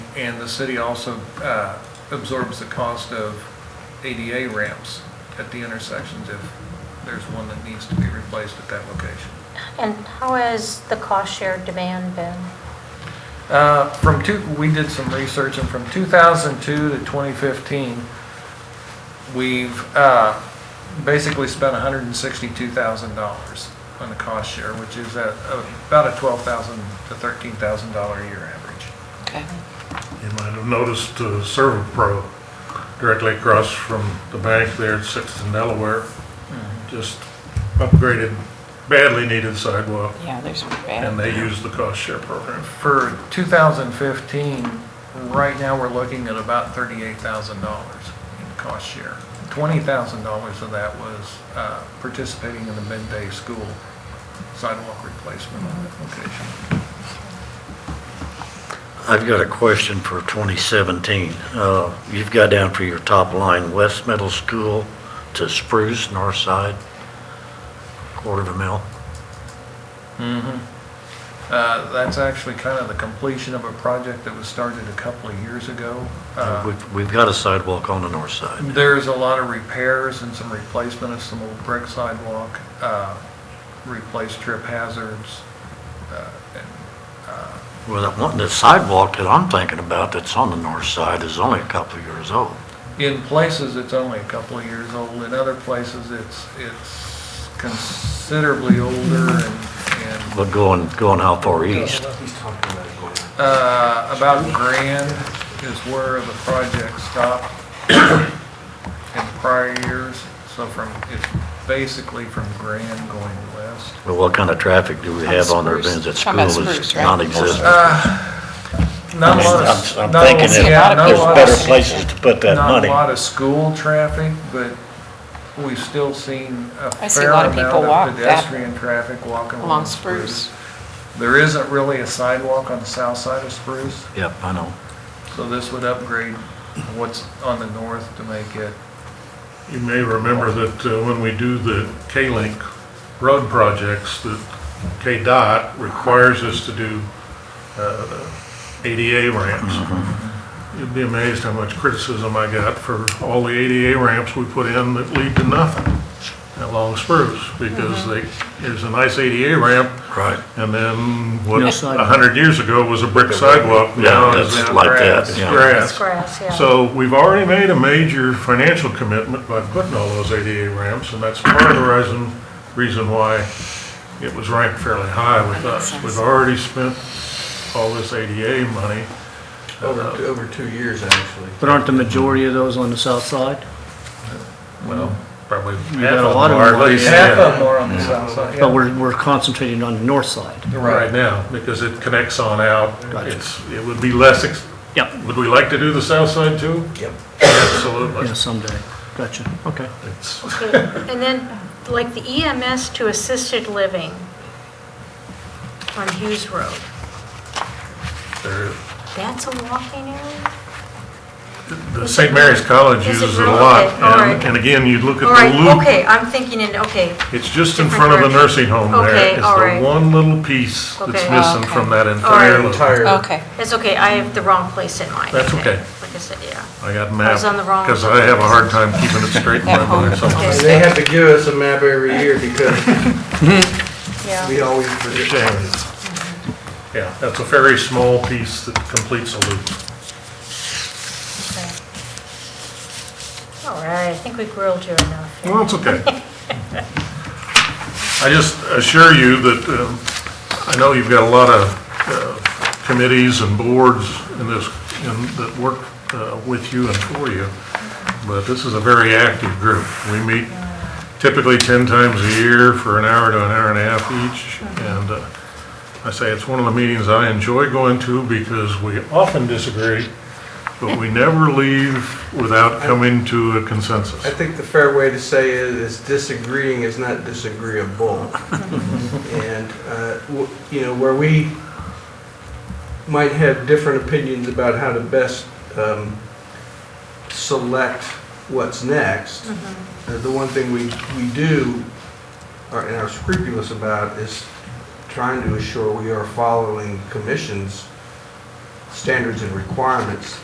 and the city also uh, absorbs the cost of ADA ramps at the intersections if there's one that needs to be replaced at that location. And how has the cost share demand been? Uh, From two, we did some research, and from 2002 to 2015, we've uh, basically spent $162,000 on the cost share, which is at uh, about a $12,000 to $13,000 a year average. Okay. You might have noticed uh, Servo Pro directly across from the bank there at Sixth and Delaware. Hmm. Just upgraded, badly needed sidewalk, Yeah, there's and bad. they use the cost share program. For 2015, right now, we're looking at about $38,000 in cost share. $20,000 of that was uh, participating in the midday school sidewalk replacement on that location. I've got a question for 2017. Uh, You've got down for your top line, West Middle School to Spruce, north side, quarter of a mil. Uh, That's actually kind of the completion of a project that was started a couple of years ago. Uh, We've- We've got a sidewalk on the north side. There's a lot of repairs and some replacement of some old brick sidewalk, uh, replace trip hazards. uh, and, uh, Well, that one, the sidewalk that I'm thinking about that's on the north side is only a couple of years old. In places, it's only a couple of years old. In other places, it's, it's considerably older and, and But going, going how far east? uh, about grand is where the project stopped in prior years. So from, it's basically from grand going west. Well, what kind of traffic do we On have on our Spruce. bins at Talking school about is Spruce, right? non-existent? Uh, Not a lot of. I'm not a thinking lot- that yeah, not a there's There's lot of- better places to put that Not a money. lot of school traffic, but we've still seen a I see a fair lot of amount people walk of that- pedestrian traffic walking Along Spruce. There isn't really a sidewalk on the south side of Spruce, Yep, I know. so this would upgrade what's on the north to make it, You may remember that uh, when we do the K-Link road projects, that KDOT requires us to do uh, ADA ramps. Mm-hmm. You'd be amazed how much criticism I got for all the ADA ramps we put in that lead to nothing at Long Spruce, because they, there's a nice ADA ramp, Right. and then what, No a sidewalk. hundred years ago was a brick sidewalk, now Yeah, it's it's like that, grass. yeah. grass. It's grass, yeah. So we've already made a major financial commitment by putting all those ADA ramps, and that's part of the reason, reason why it was ranked fairly high with That makes us. sense. We've already spent all this ADA money. Over, over two years, actually. But aren't the majority of those on the south side? Well, probably half of got a them lot of are, at money. least, half yeah, of them are on the south side. But we're, we're concentrating on the north side. right now, because it connects on out. Gotcha. It's, it would be less, ex- Yep. would we like to do the south side too? Yep. Absolutely. Yeah, someday. Gotcha, okay. It's- Okay, And then, like the EMS to assisted living on Hughes Road, they're- that's a walking area? The St. Mary's College Is it uses it a really? lot, Okay, all and, right. and again, you look at All the right, loop okay, I'm thinking in, okay, It's just in Different front of the direction. nursing home Okay, there. It's all right. the one little piece that's Okay. missing Okay. from that right. entire loop. Entire. Okay. that's okay, I have the wrong place in mind. That's I think. okay. Like I said, yeah. I got I was mapped, on the wrong- because I have a hard time keeping it straight in That my mind. whole- Okay. so- They have to give us a map every year because Yeah. we always It's a forget. shame. Yeah, that's a very small piece that completes a loop. okay. All right, I think we grilled you enough. Well, it's okay. I just assure you that, um, I know you've got a lot of uh, committees and boards in this, in- that work uh, with you and for you, but this is a very active group. We meet typically 10 times a year for an hour to an hour and a half each, and uh, I say it's one of the meetings I enjoy going to because we often disagree, but we never leave without coming to a consensus. I think the fair way to say it is disagreeing is not disagreeable. And, uh, w- you know, where we might have different opinions about how to best um, select what's next, uh, the one thing we, we do are- and are scrupulous about is trying to assure we are following commission's standards and requirements